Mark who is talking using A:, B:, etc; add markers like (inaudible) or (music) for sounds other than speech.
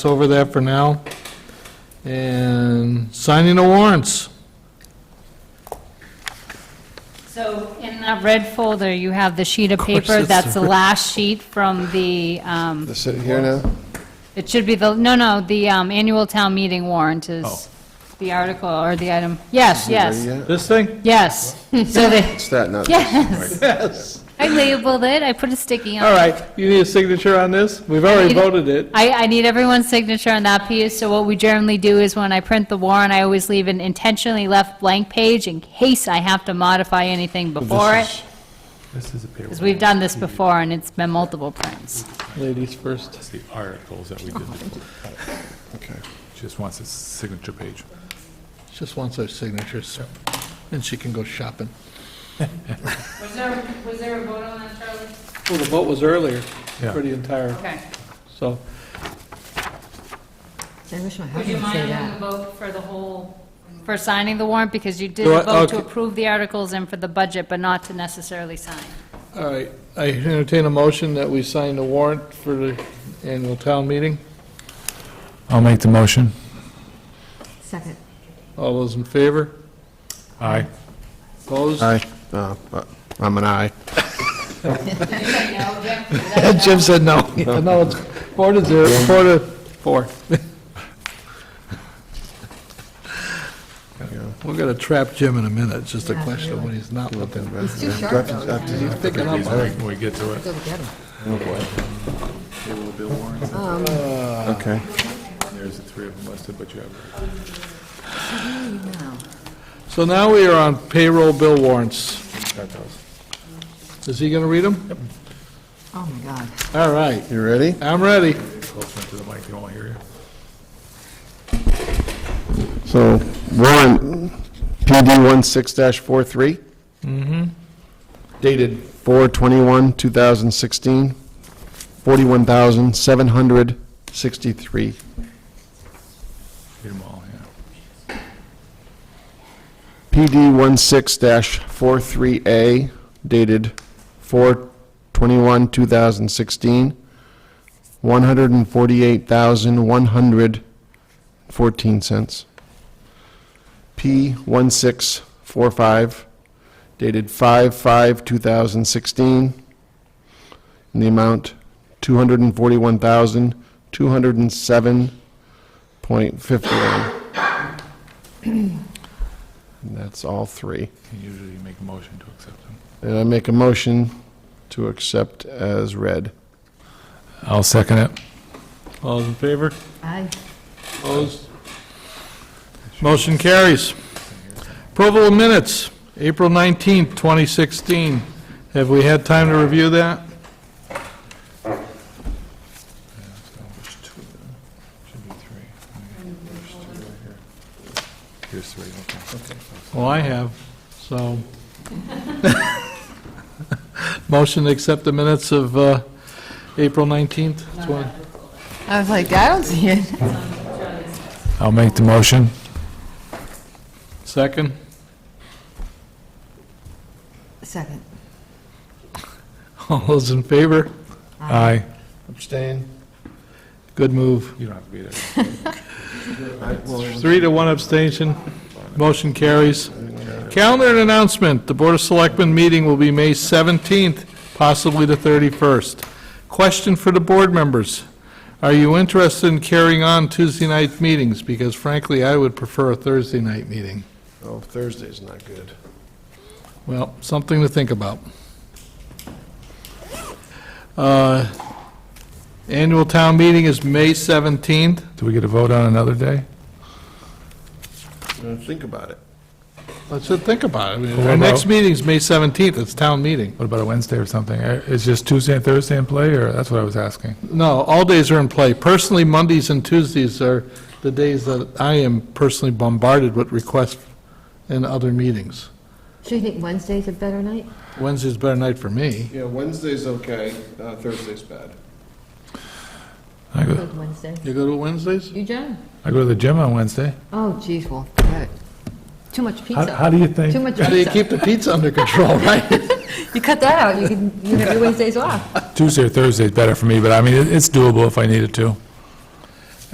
A: over that for now. And signing the warrants.
B: So in that red folder, you have the sheet of paper,
A: it's
B: that's the last sheet from the, um,
C: The sit here now?
B: it should be the, no, no, the um, annual town meeting warrant is the article or the item. Yes,
C: Ready
B: yes,
C: yet?
A: This thing?
B: yes. (laughs) So they,
C: It's that, not this.
B: yes,
A: (laughs) Yes.
B: I labeled it, I put a sticky on it.
A: All right, you need a signature on this? We've already voted it.
B: I, I need everyone's signature on that piece, so what we generally do is when I print the warrant, I always leave an intentionally left blank page in case I have to modify anything before it,
D: This is a paper.
B: because we've done this before and it's been multiple prints.
A: Ladies first.
D: It's the articles that we did before.
C: Okay.
D: She just wants a signature page.
A: Just wants our signatures, and she can go shopping.
B: Was there, was there a vote on that, Charlie?
E: Well, the vote was earlier
D: Yeah.
E: for the entire,
B: Okay.
E: so,
F: I wish my husband would say that.
B: vote for the whole? For signing the warrant, because you did
A: Do
B: a
A: I-
B: vote to
A: okay.
B: approve the articles and for the budget, but not to necessarily sign.
A: All right, I entertain a motion that we sign the warrant for the annual town meeting.
D: I'll make the motion.
F: Second.
A: All those in favor?
D: Aye.
A: Opposed?
C: Aye. Uh, I'm an aye.
A: Jim said no. (laughs) No, it's four to zero, four to four. (laughs) We're gonna trap Jim in a minute, it's just a
F: Yeah,
A: question of when he's not looking.
F: He's too sharp, though.
C: After-
A: He's picking up.
D: When we get to it.
F: Go get him.
C: Okay.
D: There's the three of them listed, but you have.
F: No.
A: So now we are on payroll bill warrants. Is he gonna read them?
F: Oh, my God.
A: All right,
C: You ready?
A: I'm ready.
D: Close one to the mic, they won't hear you.
C: So warrant PD one six dash four three. Mm-hmm. Dated four twenty-one, two thousand sixteen, forty-one thousand, seven hundred sixty-three.
D: Read them all, yeah.
C: PD one six dash four three A dated four twenty-one, two thousand sixteen, one hundred and forty-eight thousand, one hundred fourteen cents. P one six four five dated five five, two thousand sixteen, in the amount two hundred and forty-one thousand, two hundred and seven point fifty-one. And that's all three.
D: And Usually you make a motion to accept them.
C: And I make a motion to accept as read.
D: I'll second it.
A: All those in favor?
F: I,
A: Opposed? Motion carries. Approval of minutes, April 19th, 2016. Have we had time to review that?
D: There's two of them. Should be three. There's two right here. Here's three, okay.
A: Well, I have, so. Motion to accept the minutes of uh, April 19th. 20
F: I was like, I don't see it.
D: I'll make the motion.
A: Second.
F: (laughs)
A: (laughs)
F: Second.
A: All those in favor?
D: Aye.
C: Abstain.
A: Good move.
D: You don't have to be there.
A: Three to one abstention. Motion carries. Calendar and announcement. The Board of Selectmen meeting will be May 17th, possibly the 31st. Question for the board members. Are you interested in carrying on Tuesday night meetings? Because frankly, I would prefer a Thursday night meeting.
C: Oh, Thursday's not good.
A: Well, something to think about. Uh, Annual town meeting is May 17th.
D: Do we get a vote on another day?
C: Think about it.
A: Let's just think about it. I mean,
D: Well,
A: Our next
D: about-
A: meeting's May 17th, it's town meeting.
D: What about a Wednesday or something? Uh, Is just Tuesday and Thursday in play, or that's what I was asking?
A: No, all days are in play. Personally, Mondays and Tuesdays are the days that I am personally bombarded with requests in other meetings.
F: So you think Wednesday's a better night?
A: Wednesday's a better night for me.
C: Yeah, Wednesday's okay, uh, Thursday's bad.
D: I go,
F: Good Wednesday.
A: You go to Wednesdays?
F: You, John?
D: I go to the gym on Wednesday.
F: Oh, geez, well, forget it. Too much
D: How,
F: pizza.
D: how do you
F: Too
D: think,
F: much
A: How do you
F: pizza.
A: keep the pizza under control, (laughs) right?
F: You cut that out, you can, you have your Wednesdays off.
D: Tuesday or Thursday is better for me, but I mean, it- it's doable if I needed to.